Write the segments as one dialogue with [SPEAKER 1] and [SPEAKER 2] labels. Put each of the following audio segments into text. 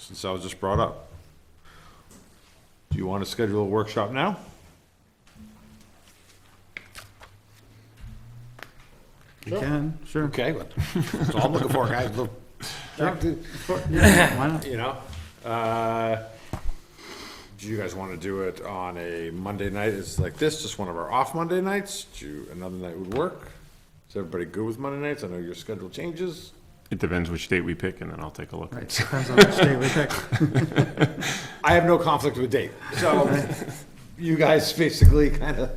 [SPEAKER 1] since I was just brought up. Do you want to schedule a workshop now?
[SPEAKER 2] You can, sure.
[SPEAKER 1] Okay, but that's all I'm looking for, guys. Look,
[SPEAKER 2] Yeah, Why not?
[SPEAKER 1] You know, uh, do you guys want to do it on a Monday night? It's like this, just one of our off Monday nights. Do you, another night would work? Is everybody good with Monday nights? I know your schedule changes.
[SPEAKER 3] It depends which date we pick, and then I'll take a look.
[SPEAKER 2] Right, depends on which day we pick.
[SPEAKER 1] I have no conflict with date, so you guys basically kind of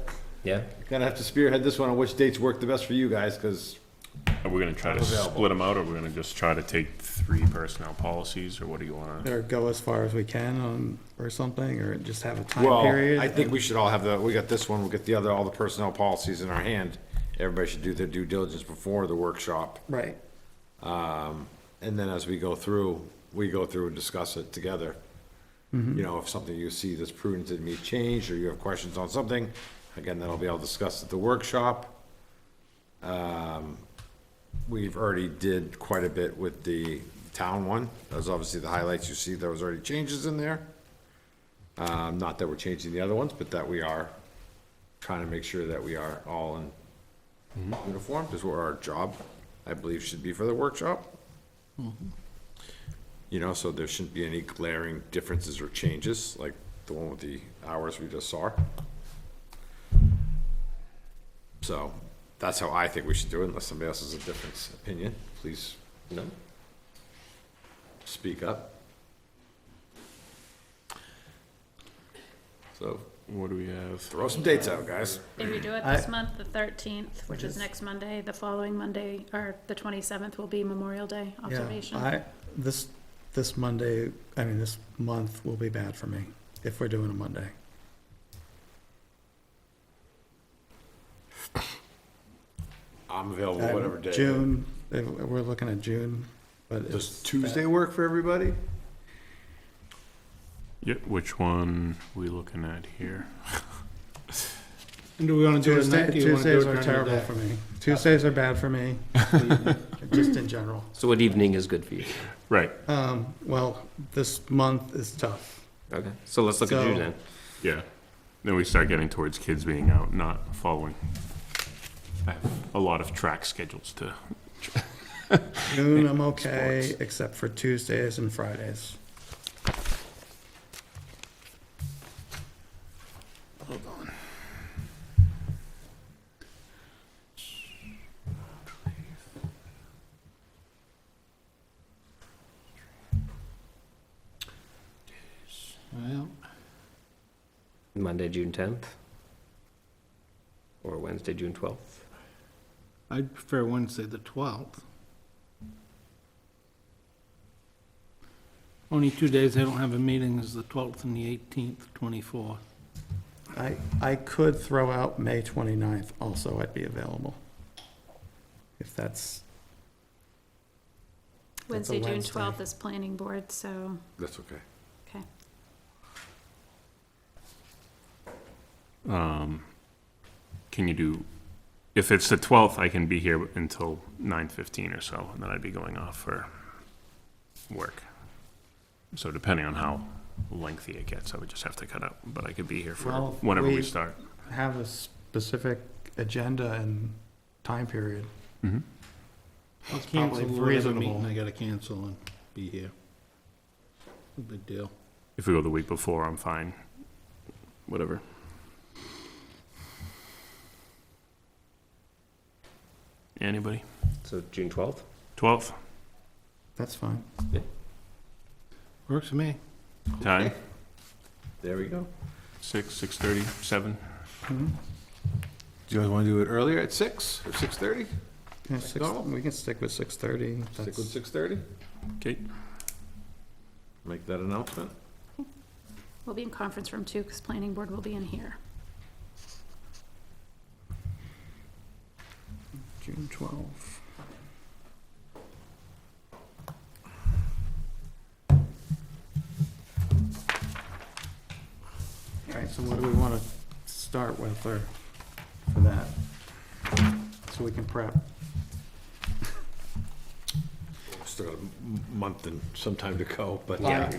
[SPEAKER 4] Yeah.
[SPEAKER 1] gonna have to spearhead this one on which dates work the best for you guys, because
[SPEAKER 3] Are we gonna try to
[SPEAKER 1] Available.
[SPEAKER 3] split them out, or we're gonna just try to take three personnel policies, or what do you wanna?
[SPEAKER 2] Or go as far as we can on, or something, or just have a time
[SPEAKER 1] well,
[SPEAKER 2] period.
[SPEAKER 1] I think we should all have the. We got this one. We'll get the other. All the personnel policies in our hand. Everybody should do their due diligence before the workshop.
[SPEAKER 2] Right,
[SPEAKER 1] Um, and then as we go through, we go through and discuss it together. You know, if something you see that's prudent that needs changed, or you have questions on something, again, that'll be all discussed at the workshop. Um, We've already did quite a bit with the town one. That was obviously the highlights you see. There was already changes in there. Um, not that we're changing the other ones, but that we are trying to make sure that we are all in uniform, is what our job, I believe, should be for the workshop. You know, so there shouldn't be any glaring differences or changes, like the one with the hours we just saw. So, that's how I think we should do it, unless somebody else has a different opinion, please
[SPEAKER 4] No.
[SPEAKER 1] speak up. So,
[SPEAKER 3] What do we have?
[SPEAKER 1] throw some dates out, guys.
[SPEAKER 5] If you do it this month, the thirteenth, which is next Monday, the following Monday, or the twenty-seventh will be Memorial Day
[SPEAKER 2] yeah.
[SPEAKER 5] observation.
[SPEAKER 2] I, this, this Monday, I mean, this month will be bad for me if we're doing a Monday.
[SPEAKER 1] I'm available
[SPEAKER 2] Uh,
[SPEAKER 1] whatever day.
[SPEAKER 2] June, eh, we're looking at June, but
[SPEAKER 1] Does
[SPEAKER 2] it's,
[SPEAKER 1] Tuesday work for everybody?
[SPEAKER 3] Yeah, which one we looking at here?
[SPEAKER 6] And do we want to do it at
[SPEAKER 2] Tuesday,
[SPEAKER 6] night? Do you want to do
[SPEAKER 2] Tuesdays
[SPEAKER 6] it
[SPEAKER 2] are
[SPEAKER 6] during the
[SPEAKER 2] terrible
[SPEAKER 6] day?
[SPEAKER 2] for me. Tuesdays are bad for me, just in general.
[SPEAKER 4] So what evening is good for you?
[SPEAKER 3] Right,
[SPEAKER 2] Um, well, this month is tough.
[SPEAKER 4] Okay. So let's look at
[SPEAKER 2] So-
[SPEAKER 4] June then.
[SPEAKER 3] yeah. Then we start getting towards kids being out, not following. I have a lot of track schedules to,
[SPEAKER 2] Noon, I'm okay,
[SPEAKER 3] Sports.
[SPEAKER 2] except for Tuesdays and Fridays.
[SPEAKER 6] Well,
[SPEAKER 4] Monday, June tenth. Or Wednesday, June twelfth.
[SPEAKER 6] I'd prefer Wednesday, the twelfth. Only two days I don't have a meeting is the twelfth and the eighteenth, twenty-four.
[SPEAKER 2] I, I could throw out May 29th also, I'd be available. If that's,
[SPEAKER 5] Wednesday, June
[SPEAKER 2] Wednesday.
[SPEAKER 5] twelfth is planning board, so,
[SPEAKER 1] That's okay.
[SPEAKER 5] okay.
[SPEAKER 3] um, can you do, if it's the twelfth, I can be here until nine fifteen or so, and then I'd be going off for work. So depending on how lengthy it gets, I would just have to cut out, but I could be here for
[SPEAKER 2] Well,
[SPEAKER 3] whenever
[SPEAKER 2] we-
[SPEAKER 3] we start.
[SPEAKER 2] have a specific agenda and time period.
[SPEAKER 6] I'll
[SPEAKER 2] probably
[SPEAKER 6] cancel whatever meeting
[SPEAKER 2] reasonable.
[SPEAKER 6] I gotta cancel and be here. No big deal.
[SPEAKER 3] If we go the week before, I'm fine. Whatever. Anybody?
[SPEAKER 4] So June twelfth?
[SPEAKER 3] Twelfth,
[SPEAKER 2] That's fine.
[SPEAKER 6] Works for me.
[SPEAKER 3] time,
[SPEAKER 1] There we go.
[SPEAKER 3] six, six-thirty, seven?
[SPEAKER 1] Do you guys want to do it earlier at six or six thirty?
[SPEAKER 2] Yeah, six- We can stick with 6:30.
[SPEAKER 1] Stick with
[SPEAKER 2] That's-
[SPEAKER 1] six thirty.
[SPEAKER 3] Okay.
[SPEAKER 1] Make that announcement.
[SPEAKER 5] We'll be in conference room two, because planning board will be in here.
[SPEAKER 2] June 12th. All right, so what do we want to start with or for that? So we can prep.
[SPEAKER 1] Still got a m- month and some time to go, but
[SPEAKER 4] Yeah.